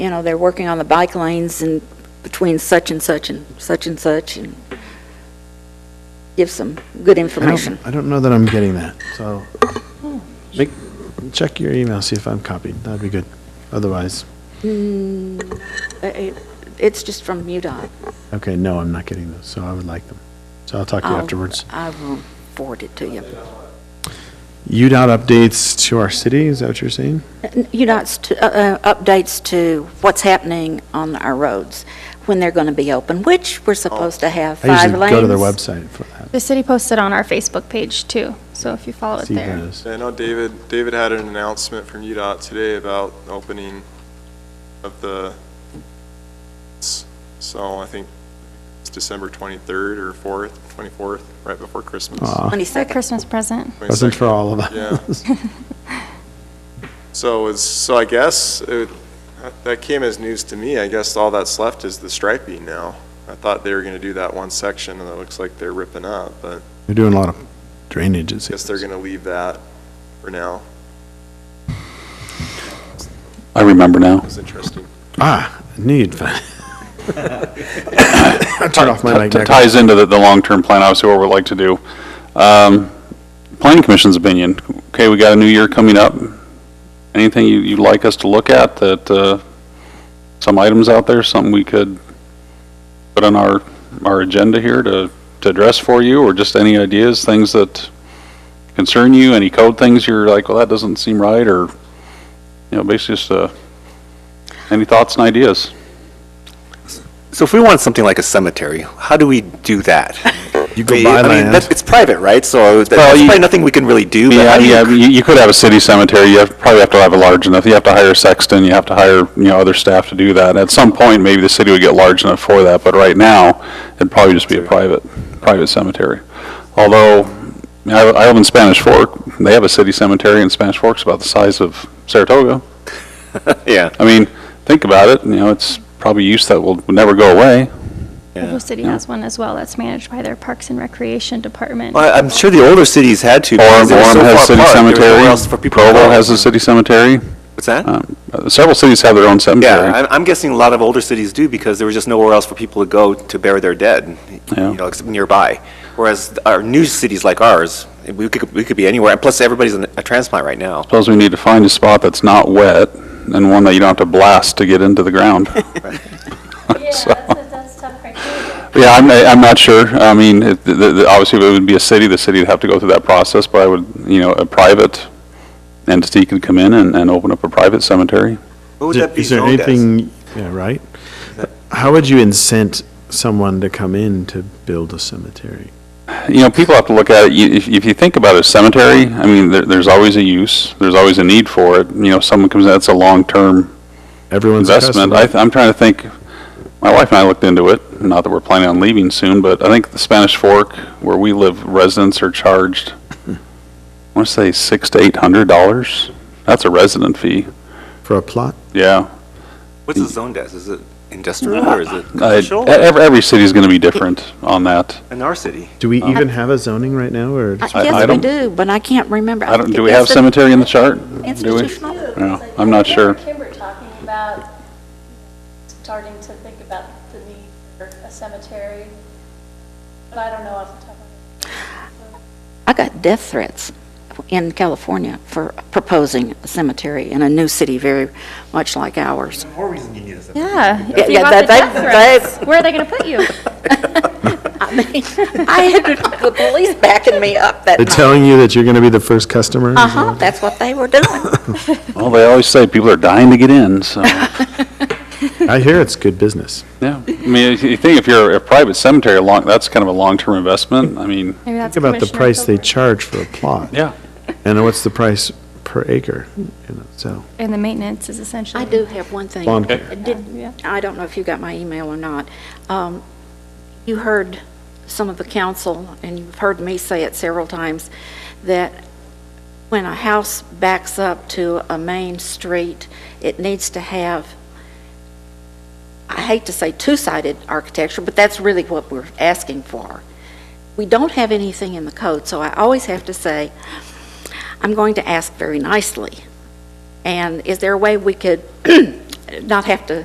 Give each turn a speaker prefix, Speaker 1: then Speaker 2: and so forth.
Speaker 1: you know, they're working on the bike lanes and between such and such and such and such, and give some good
Speaker 2: I don't-
Speaker 1: information.
Speaker 2: I don't know that I'm getting that, so make, check your email, see if I'm copied. That'd be good. Otherwise,
Speaker 1: Uh, it- It's just from UDOT.
Speaker 2: okay, no, I'm not getting those, so I would like them. So I'll talk to you
Speaker 1: I'll-
Speaker 2: afterwards.
Speaker 1: I will forward it to you.
Speaker 2: UDOT updates to our city, is that what you're saying?
Speaker 1: UDOT's t- uh, uh, updates to what's happening on our roads, when they're going to be open, which we're supposed to have
Speaker 2: I
Speaker 1: five
Speaker 2: usually
Speaker 1: lanes.
Speaker 2: go to their website for that,
Speaker 3: The city posted on our Facebook page too, so if you follow
Speaker 1: Oh,
Speaker 3: it
Speaker 2: see
Speaker 3: there.
Speaker 2: those.
Speaker 4: I know David, David had an announcement from UDOT today about opening of the, so I think it's December 23rd or 4th, 24th, right before Christmas.
Speaker 1: Ah,
Speaker 2: Aw,
Speaker 3: It's a
Speaker 1: 22nd.
Speaker 3: Christmas present.
Speaker 2: Wasn't for
Speaker 4: 22nd.
Speaker 2: all of
Speaker 4: Yeah.
Speaker 2: us.
Speaker 4: So it's, so I guess, it- that came as news to me. I guess all that's left is the striping now. I thought they were going to do that one section, and it looks like they're ripping up, but
Speaker 2: They're doing a lot of drainage, it
Speaker 4: I guess they're
Speaker 2: seems.
Speaker 4: going to leave that for now.
Speaker 5: I remember now.
Speaker 4: It's interesting.
Speaker 2: Ah, I knew you'd find. I turned off my mic.
Speaker 5: T-
Speaker 2: back.
Speaker 5: Ties into the, the long-term plan, obviously, what we'd like to do. Um, Planning Commission's opinion, okay, we got a new year coming up. Anything you, you'd like us to look at, that, uh, some items out there, something we could put on our, our agenda here to, to address for you, or just any ideas, things that concern you, any code things you're like, well, that doesn't seem right, or, you know, basically just, uh, any thoughts and ideas?
Speaker 6: So if we want something like a cemetery, how do we do that?
Speaker 2: You
Speaker 6: I
Speaker 2: go
Speaker 6: mean,
Speaker 2: buy
Speaker 6: I mean,
Speaker 2: land.
Speaker 6: that- it's private, right? So that-
Speaker 5: Well,
Speaker 6: that's
Speaker 5: you-
Speaker 6: probably nothing we can really do. but
Speaker 5: Yeah,
Speaker 6: how do you-
Speaker 5: yeah, you, you could have a city cemetery, you have, probably have to have a large enough, you have to hire a sexton, you have to hire, you know, other staff to do that. At some point, maybe the city would get large enough for that, but right now, it'd probably just be a private, private cemetery. Although, I, I live in Spanish Fork, they have a city cemetery in Spanish Fork's about the size of Saratoga.
Speaker 6: Yeah.
Speaker 5: I mean, think about it, you know, it's probably use that will, will never go away.
Speaker 3: Oklahoma City has one as well that's managed by their Parks and Recreation Department.
Speaker 6: Well, I- I'm sure the older cities had to.
Speaker 5: Orem,
Speaker 6: because they were so
Speaker 5: Orem has a city
Speaker 6: far apart, there was nowhere
Speaker 5: cemetery,
Speaker 6: else for people to
Speaker 5: Provo
Speaker 6: go.
Speaker 5: has a city cemetery,
Speaker 6: What's that?
Speaker 5: um, several cities have their own cemetery.
Speaker 6: Yeah, I'm, I'm guessing a lot of older cities do because there was just nowhere else for people to go to bury their dead,
Speaker 5: Yeah.
Speaker 6: you know, except nearby. Whereas our new cities like ours, we could, we could be anywhere. And plus, everybody's an- a transplant right now.
Speaker 5: Suppose we need to find a spot that's not wet and one that you don't have to blast to get into the ground. So- Yeah, I'm, I'm not sure. I mean, it- the- the- obviously, if it would be a city, the city would have to go through that process, but I would, you know, a private entity could come in and, and open up a private cemetery.
Speaker 6: What would
Speaker 2: Is there-
Speaker 6: that be
Speaker 2: is there
Speaker 6: zoned as?
Speaker 2: anything, yeah, right? How would you incent someone to come in to build a cemetery?
Speaker 5: you know, people have to look at it, You- if, if you think about a cemetery, I mean, there, there's always a use, there's always a need for it, you know, someone comes, in, that's a long-term
Speaker 2: Everyone's a
Speaker 5: investment. I,
Speaker 2: customer.
Speaker 5: th- I'm trying to think, my wife and I looked into it, not that we're planning on leaving soon, but I think the Spanish Fork, where we live, residents are charged, I want to say six to eight hundred dollars. That's a resident fee,
Speaker 2: For a plot?
Speaker 5: yeah.
Speaker 6: What's it zoned as? Is it industrial or is it
Speaker 5: I- e-
Speaker 6: commercial?
Speaker 5: Every, every city's going to be different on that.
Speaker 6: In our city.
Speaker 2: Do we
Speaker 5: Uh-huh.
Speaker 2: even have a zoning right now, or? just-
Speaker 1: I
Speaker 5: I
Speaker 1: guess we
Speaker 5: don't-
Speaker 1: do, but I can't remember.
Speaker 5: I don't,
Speaker 1: think
Speaker 5: do we
Speaker 1: it's
Speaker 5: have
Speaker 1: the
Speaker 5: cemetery in the chart? Do we?
Speaker 1: Institutional.
Speaker 5: Yeah, I'm not sure.
Speaker 7: Kimber talking about starting to think about the need for a cemetery, but I don't know off the top of my head.
Speaker 1: I got death threats in California for proposing a cemetery in a new city very much like ours.
Speaker 3: Yeah.
Speaker 1: Yeah,
Speaker 3: If you
Speaker 1: yeah, that-
Speaker 3: got the
Speaker 1: that-
Speaker 3: death threats, where are they going to put you?
Speaker 1: I mean, I had the police backing me up that
Speaker 2: They're
Speaker 1: night.
Speaker 2: telling you that you're going to be the first customer?
Speaker 1: Uh-huh, that's what they were doing.
Speaker 5: Well, they always say people are dying to get in, so.
Speaker 2: I hear it's good business.
Speaker 5: Yeah, I mean, if you think if you're a private cemetery, long, that's kind of a long-term investment, I mean,
Speaker 3: Maybe that's
Speaker 2: Think about the
Speaker 3: Commissioner
Speaker 2: price they
Speaker 3: Hilbert.
Speaker 2: charge for a plot,
Speaker 5: yeah.
Speaker 2: and what's the price per acre, you know, so.
Speaker 3: And the maintenance is essentially.
Speaker 1: I do have one thing.
Speaker 2: Lawn care.
Speaker 3: Yeah.
Speaker 1: Did, I don't know if you got my email or not. Um, You heard some of the council, and you've heard me say it several times, that when a house backs up to a main street, it needs to have, I hate to say two-sided architecture, but that's really what we're asking for. We don't have anything in the code, so I always have to say, I'm going to ask very nicely. And is there a way we could not have to